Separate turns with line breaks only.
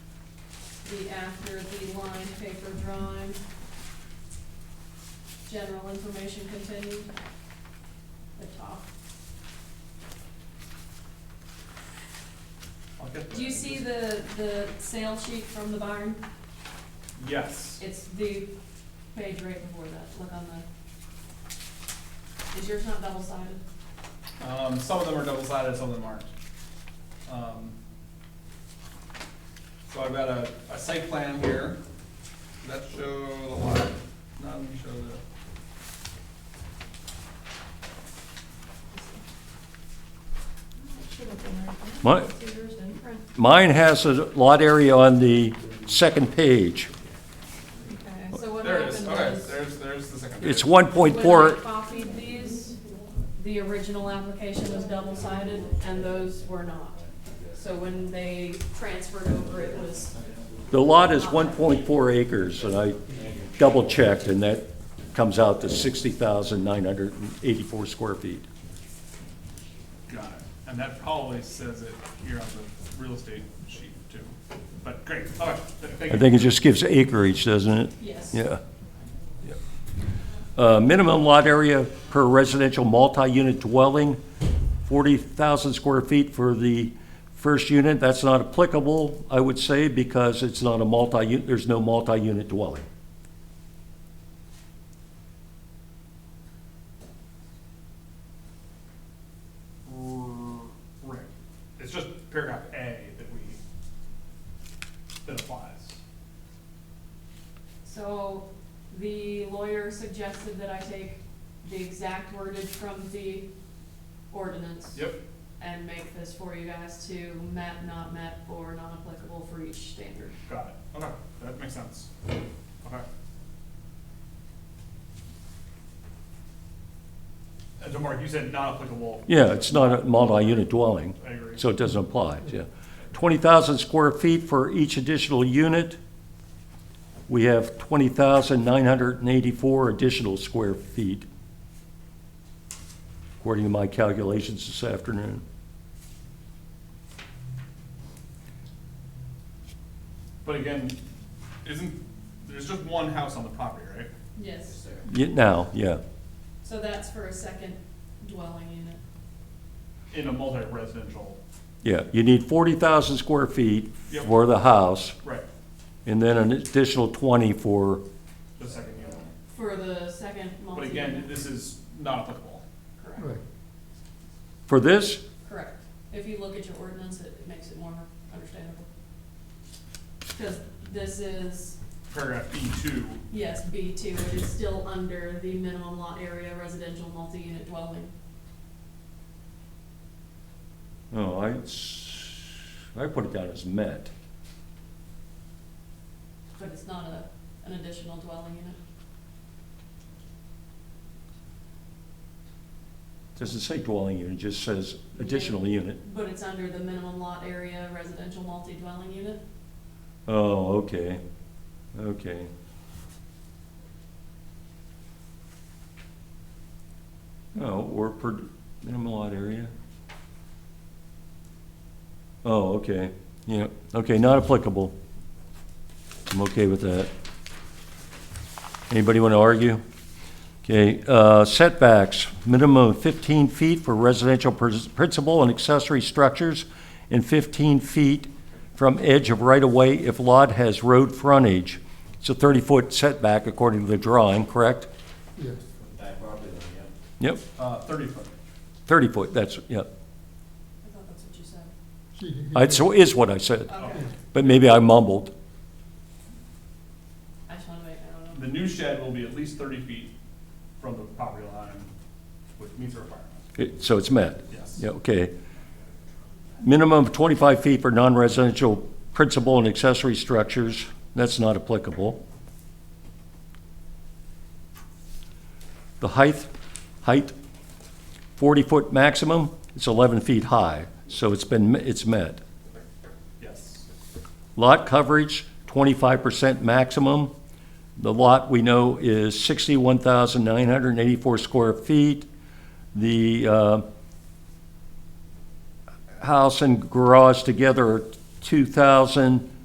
be after the line paper drawing. General information continued, the top.
I'll get
Do you
that.
see the, the sale sheet from the barn?
Yes.
It's the page right before that, look on the, is yours not double sided?
Um, some of them are double sided, some of them aren't. Um, So I've got a, a site plan here that show the lot, not only show the,
My- Mine has a lot area on the second page.
Okay, so what
there it is,
happened
okay,
was.
there's, there's the second.
It's
page.
one point
When
four,
I copied these, the original application was double-sided, and those were not. So when they transferred over, it was,
the lot is one point four acres, and I double checked, and that comes out to sixty thousand nine hundred and eighty-four square feet.
Got it, and that probably says it here on the real estate sheet too, but great, all right, th- thank
I
you.
think it just gives acreage, doesn't it?
yes.
Yeah. Uh, Minimum lot area per residential multi-unit dwelling, 40,000 square feet for the first unit. That's not applicable, I would say, because it's not a multi, there's no multi-unit dwelling.
R- Right, it's just paragraph A that we, that applies.
So the lawyer suggested that I take the exact wordage from the ordinance
Yep,
and make this for you guys to met, not met, or non-applicable for each standard.
got it, okay, that makes sense, okay. And so Mark, Uh, you said not applicable,
Yeah, it's not a multi-unit dwelling,
I agree.
so it doesn't apply, yeah. 20,000 square feet for each additional unit. We have 20,984 additional square feet, according to my calculations this afternoon.
But again, isn't, there's just one house on the property, right?
Yes, sir.
Yeah, Now, yeah,
So that's for a second dwelling unit.
In a multi-residential,
yeah. You need 40,000 square feet
Yep.
for the house,
right,
and then an additional 20 for,
the second unit.
For the second
But
multi-unit.
again, this is not applicable.
Correct.
for this?
Correct. If you look at your ordinance, it it makes it more understandable. Because this is,
Paragraph B two,
yes, B two, it is still under the minimum lot area residential multi-unit dwelling.
Oh, I, s- I put it down as met.
But it's not a, an additional dwelling unit.
Doesn't say dwelling unit, it just says additional unit.
But it's under the minimum lot area residential multi-dwelling unit.
Oh, okay, okay. Oh, or per minimum lot area? Oh, okay, yeah, okay, not applicable. I'm okay with that. Anybody want to argue? Okay, uh, setbacks, minimum of 15 feet for residential pers- principal and accessory structures, and 15 feet from edge of right-of-way if lot has road frontage. It's a 30-foot setback according to the drawing, correct?
Yes,
Back property line, yeah.
Yep,
uh, thirty foot.
30-foot, that's, yep.
I thought that's what you said.
she can
That's, is what I said,
Okay,
but maybe I mumbled.
I just wanna make, I don't
The
know.
new shed will be at least thirty feet from the property line, which meets the requirement,
It- So it's met.
yes.
Yeah, okay. Minimum of 25 feet for non-residential principal and accessory structures, that's not applicable. The height, height, 40-foot maximum, it's 11 feet high, so it's been, it's met.
Yes.
Lot coverage, 25% maximum. The lot we know is 61,984 square feet. The uh, house and garage together are 2,000,